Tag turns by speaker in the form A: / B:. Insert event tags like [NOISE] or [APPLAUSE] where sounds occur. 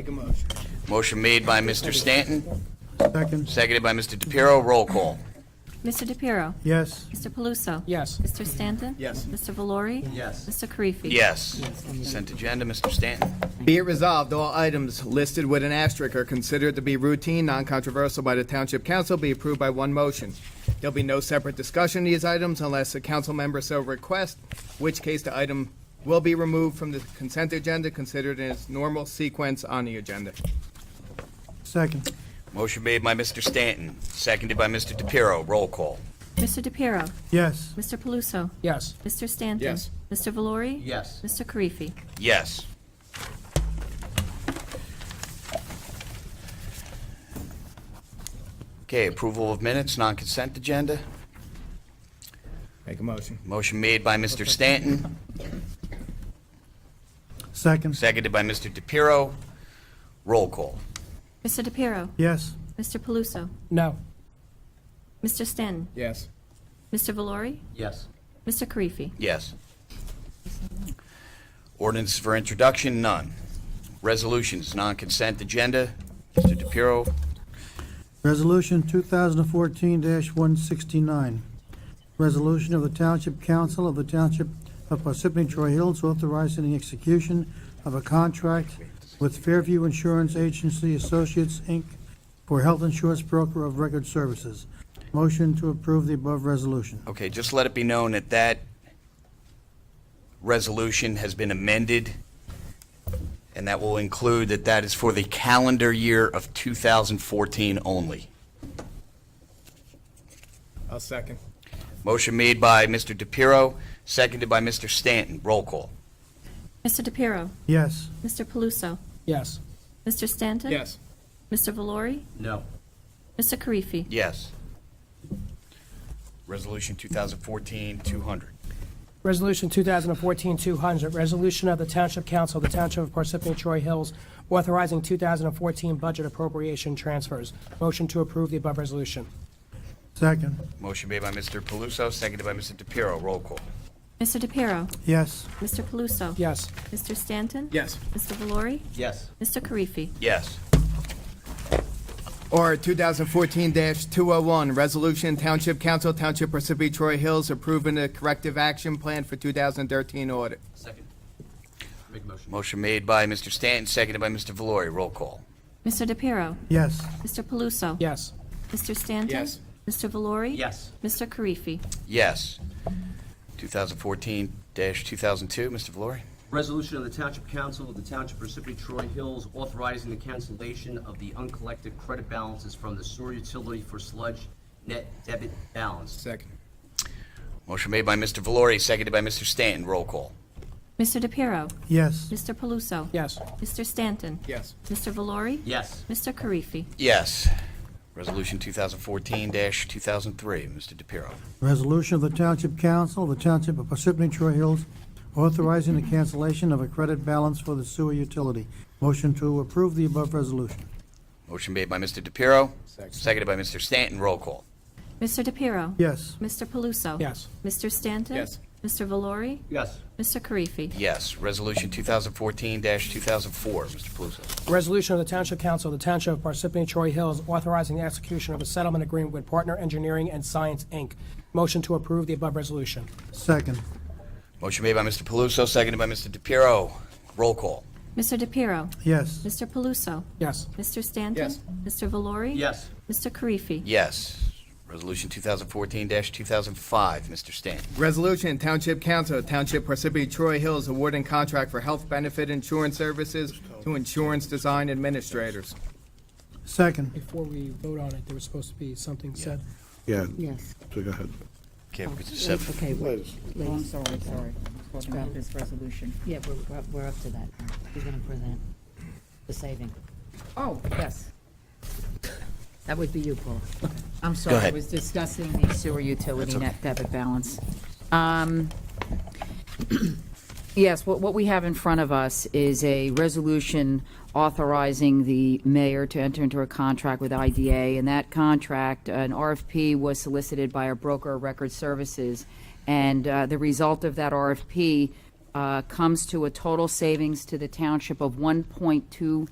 A: Make a motion.
B: Motion made by Mr. Stanton,
C: Second,
B: seconded by Mr. DePiero. Roll call.
D: Mr. DePiero.
C: yes.
D: Mr. Paluso.
E: Yes.
D: Mr. Stanton.
A: Yes.
D: Mr. Valori.
A: Yes.
D: Mr. Karifi.
B: Yes. Consent agenda, Mr. Stanton.
A: Be it resolved, all items listed with an asterisk are considered to be routine, non-controversial by the Township Council, be approved by one motion. There'll be no separate discussion of these items unless a council member so requests, which case the item will be removed from the consent agenda, considered in its normal sequence on the agenda.
C: Second,
B: Motion made by Mr. Stanton, seconded by Mr. DePiero. Roll call.
D: Mr. DePiero.
C: yes.
D: Mr. Paluso.
E: Yes.
D: Mr. Stanton.
A: Yes.
D: Mr. Valori.
E: Yes.
D: Mr. Karifi.
B: Yes. Okay, approval of minutes, non-consent agenda.
A: Make a motion.
B: Motion made by Mr. Stanton,
C: Second,
B: seconded by Mr. DePiero. Roll call.
D: Mr. DePiero.
C: yes.
D: Mr. Paluso.
E: No.
D: Mr. Stanton.
A: Yes.
D: Mr. Valori.
E: Yes.
D: Mr. Karifi.
B: Yes. Ordinance for introduction, none. Resolutions, non-consent agenda. Mr. DePiero,
C: Resolution 2014-169, resolution of the Township Council of the Township of Parsippany Troy Hills authorizing the execution of a contract with Fairview Insurance Agency Associates, Inc. for health insurance broker of record services. Motion to approve the above resolution.
B: okay, just let it be known that that resolution has been amended, and that will include that that is for the calendar year of 2014 only.
A: I'll second.
B: Motion made by Mr. DePiero, seconded by Mr. Stanton. Roll call.
D: Mr. DePiero.
C: Yes.
D: Mr. Paluso.
E: Yes.
D: Mr. Stanton.
A: Yes.
D: Mr. Valori.
E: No.
D: Mr. Karifi.
B: Yes. Resolution 2014-200.
E: Resolution 2014-200, resolution of the Township Council of the Township of Parsippany Troy Hills authorizing 2014 budget appropriation transfers. Motion to approve the above resolution.
C: Second,
B: Motion made by Mr. Paluso, seconded by Mr. DePiero. Roll call.
D: Mr. DePiero.
C: yes.
D: Mr. Paluso.
E: Yes.
D: Mr. Stanton.
A: Yes.
D: Mr. Valori.
E: Yes.
D: Mr. Karifi.
B: Yes.
A: Or 2014-201, Resolution Township Council, Township Parsippany Troy Hills approving the corrective action plan for 2013 audit.
E: Second. Make motion.
B: Motion made by Mr. Stanton, seconded by Mr. Valori. Roll call.
D: Mr. DePiero.
C: Yes.
D: Mr. Paluso.
E: Yes.
D: Mr. Stanton?
A: Yes.
D: Mr. Valori?
E: Yes.
D: Mr. Karifi?
B: Yes. 2014-2002, Mr. Valori.
F: Resolution of the Township Council of the Township of Parsippany Troy Hills authorizing the cancellation of the uncollected credit balances from the sewer utility for sludge net debit balance.
A: Second.
B: Motion made by Mr. Valori, seconded by Mr. Stanton. Roll call.
D: Mr. DePiero?
C: Yes.
D: Mr. Paluso?
E: Yes.
D: Mr. Stanton?
A: Yes.
D: Mr. Valori?
F: Yes.
D: Mr. Karifi?
B: Yes. Resolution 2014-2003, Mr. DePiero.
C: Resolution of the Township Council of the Township of Parsippany Troy Hills authorizing the cancellation of a credit balance for the sewer utility. Motion to approve the above resolution.
B: Motion made by Mr. DePiero,
A: Second.
B: seconded by Mr. Stanton. Roll call.
D: Mr. DePiero?
C: Yes.
D: Mr. Paluso?
E: Yes.
D: Mr. Stanton?
A: Yes.
D: Mr. Valori?
F: Yes.
D: Mr. Karifi?
B: Yes. Resolution 2014-2004, Mr. Paluso.
E: Resolution of the Township Council of the Township of Parsippany Troy Hills authorizing the execution of a settlement agreement with Partner Engineering and Science, Inc. Motion to approve the above resolution.
C: Second,
B: Motion made by Mr. Paluso, seconded by Mr. DePiero. Roll call.
D: Mr. DePiero?
C: yes.
D: Mr. Paluso?
E: Yes.
D: Mr. Stanton?
A: Yes.
D: Mr. Valori?
F: Yes.
D: Mr. Karifi?
B: Yes. Resolution 2014-2005, Mr. Stanton.
A: Resolution, Township Council, Township Parsippany Troy Hills awarding contract for health benefit insurance services to insurance design administrators.
C: Second,
E: Before we vote on it, there was supposed to be something said.
G: Yeah,
H: Yes.
G: so go ahead.
B: Okay, we could just
H: Oh,
B: have-
H: Okay, we're-
G: Liz.
H: oh, I'm sorry, sorry. Talk about this resolution. Yeah, we're, we're up- we're up to that. He's going to present the saving. Oh, yes. That would be you, Paul. I'm sorry, I
B: ahead.
H: was discussing the sewer utility net debit balance. Um, [CLEARS THROAT] Yes, what, what we have in front of us is a resolution authorizing the mayor to enter into a contract with IDA. And that contract, an RFP was solicited by our broker of record services. And uh, the result of that RFP uh, comes to a total savings to the township of $1.2